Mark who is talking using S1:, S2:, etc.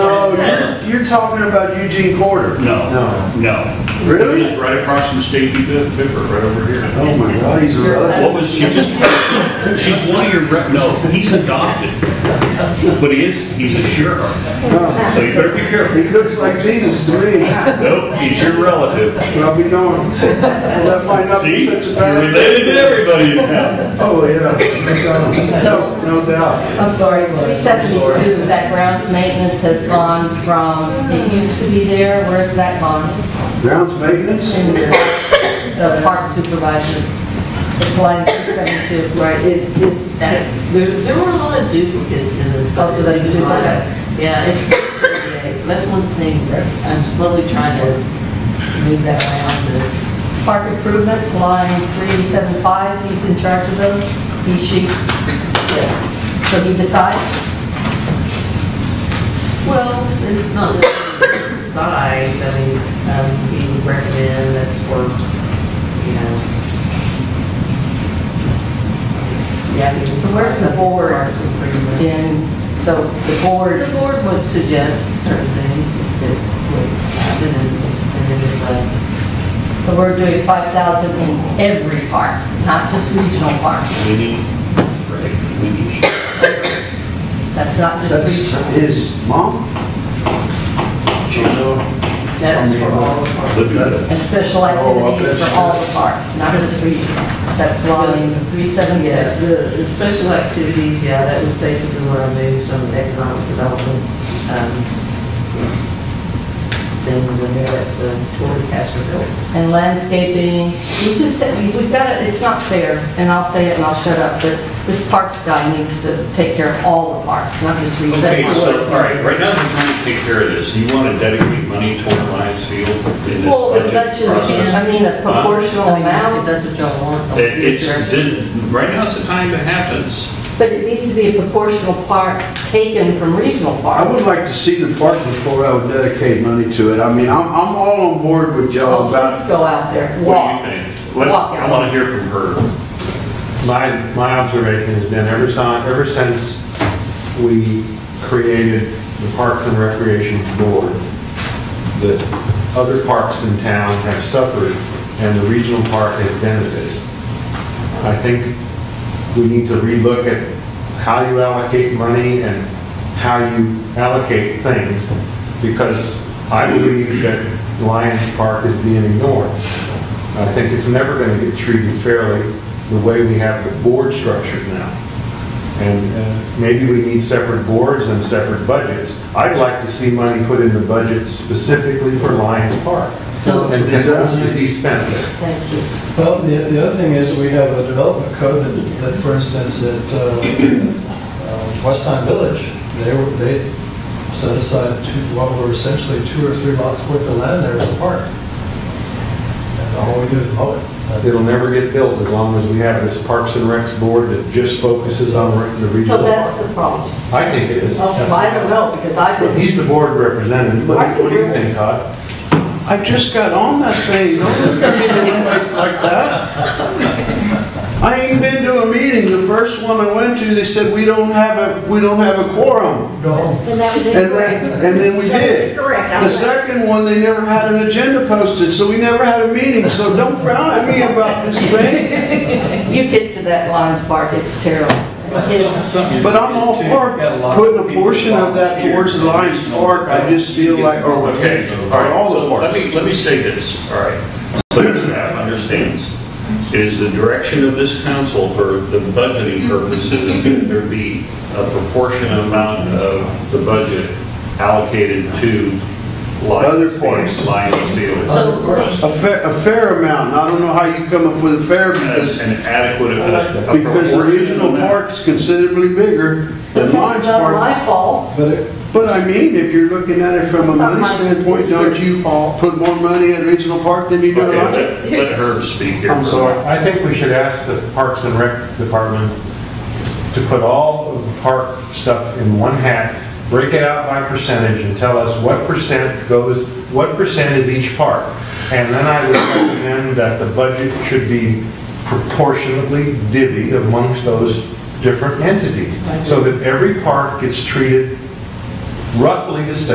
S1: Oh, you're talking about Eugene Corder.
S2: No, no.
S1: Really?
S2: It's right across from State Paper, right over here.
S1: Oh my God, he's a
S2: What was, she just, she's one of your, rep- no, he's adopted, but he is, he's a sheriff. So you better be careful.
S1: He looks like Jesus to me.
S2: Nope, he's your relative.
S1: But I'll be going. Well, that might not
S2: See,
S1: be
S2: you're
S1: such a bad.
S2: related to everybody in town.
S1: Oh yeah, that's, um, no, no doubt.
S3: I'm sorry, 372, that grounds maintenance has gone from, it used to be there, where's that gone?
S1: Grounds maintenance.
S3: In The park supervisor. It's line 372.
S4: Right, it, it's, that's, there, there were a lot of duplicates in this.
S3: Oh, so that's
S4: budget.
S3: duplicate.
S4: Yeah, it's, yeah, so that's one thing, that I'm slowly trying to move that around.
S3: Park improvements, line 375, he's in charge of those, he, she,
S4: Yes.
S3: so he decides.
S4: Well, it's not necessarily size, I mean, um, we would recommend that's for, you know. Yeah. I mean,
S3: So where's the board
S4: improvements.
S3: And so the board,
S4: The board would suggest certain things that would uh, happen, and and then there's a,
S3: so we're doing 5,000 in every park, not just regional parks.
S2: We need, right, we need.
S3: That's not
S1: That's
S3: just regional.
S1: his mom.
S4: that's for all the parks.
S2: Look at that.
S3: And
S2: Oh,
S3: special activities for all the parks, not just regional. That's line
S4: Oh, Yeah,
S3: 376.
S4: the, the special activities, yeah, that was basically where I moved some economic development, um, things in there, that's uh, toward Castroville.
S3: And landscaping, we just, said- we- we've got, it. it's not fair, and I'll say it and I'll shut up, but this parks guy needs to take care of all the parks, not just regional.
S2: Okay,
S3: That's
S2: so,
S3: what-
S2: all right, right now, you're trying to take care of this. You want to dedicate money toward Lions Field in this
S3: Well, as much
S2: budget
S3: as, I
S2: process?
S3: mean, a proportional
S4: I mean, If
S3: amount,
S4: that's what y'all want.
S2: It- It's, then- right now's the time it happens.
S3: but it needs to be a proportional part taken from regional
S1: I
S3: parks.
S1: would like to see the park before I would dedicate money to it. I mean, I'm, I'm all on board with y'all
S3: Let's
S1: about,
S3: go out there,
S2: Oh, What
S3: walk.
S2: do you think? Let-
S3: Walk
S2: I
S3: out.
S2: want to hear from her.
S5: My, my observation has been ever since, ever since we created the Parks and Recreation Board, that other parks in town have suffered and the regional park has benefited. I think we need to relook at how you allocate money and how you allocate things because I believe that Lions Park is being ignored. I think it's never going to get treated fairly the way we have the board structured now. And uh, maybe we need separate boards and separate budgets. I'd like to see money put in the budget specifically for Lions Park.
S4: So-
S5: And can only be spent there.
S3: Thank you.
S6: Well, the, the other thing is we have a development code that, that for instance, at, uh, uh, West Time Village, they were, they set aside two, what were essentially two or three lots worth of land there as a park. And all we do is mow it.
S5: It'll never get built as long as we have this Parks and Recs board that just focuses on the regional
S3: So that's the
S5: park.
S3: problem.
S5: I think it is.
S3: Well, I don't know, because I've
S5: But
S3: been,
S5: He's the board representative. What do you- what do you think, Todd?
S1: I just got on that thing. Don't look at me in the face like that. I ain't been to a meeting. The first one I went to, they said, we don't have a, we don't have a quorum.
S6: Go home.
S7: And that was
S1: And then,
S7: incorrect.
S1: and then we did.
S7: Correct.
S1: The second one, they never had an agenda posted, so we never had a meeting. So don't frown at me about this thing.
S3: you get to that Lions Park, it's terrible. It's-
S1: But I'm all for putting a portion of that towards the Lions Park. I just feel like, or
S2: Okay, all
S1: or
S2: right.
S1: all
S2: so
S1: the
S2: Let
S1: parks.
S2: me, let me say this, all right. So the staff understands, it is the direction of this council for the budgeting purposes that there be a proportionate amount of the budget allocated to
S1: Other
S2: Lions
S1: parks.
S2: Field. Lions Field.
S3: So,
S1: A fair, a fair amount, and I don't know how you come up with a fair,
S2: as
S1: because,
S2: an adequate, uh, a a
S1: because the
S2: proportionate
S1: regional
S2: amount.
S1: park's considerably bigger than
S3: it's
S1: Lions
S3: not
S1: Park.
S3: my fault.
S6: But it,
S1: But I mean, if you're looking at it from a
S3: It's not
S1: money
S3: my
S1: standpoint, don't you
S3: district's fault.
S1: put more money at regional park than you do at
S2: Okay,
S1: Lions?
S2: let- let her speak here.
S1: I'm
S2: for a
S1: sorry.
S5: I think we should ask the Parks and Rec Department to put all of the park stuff in one hat, break it out by percentage, and tell us what percent goes, what percent is each park. And then I would recommend that the budget should be proportionately divvied amongst those different entities, so that every park gets treated roughly the same.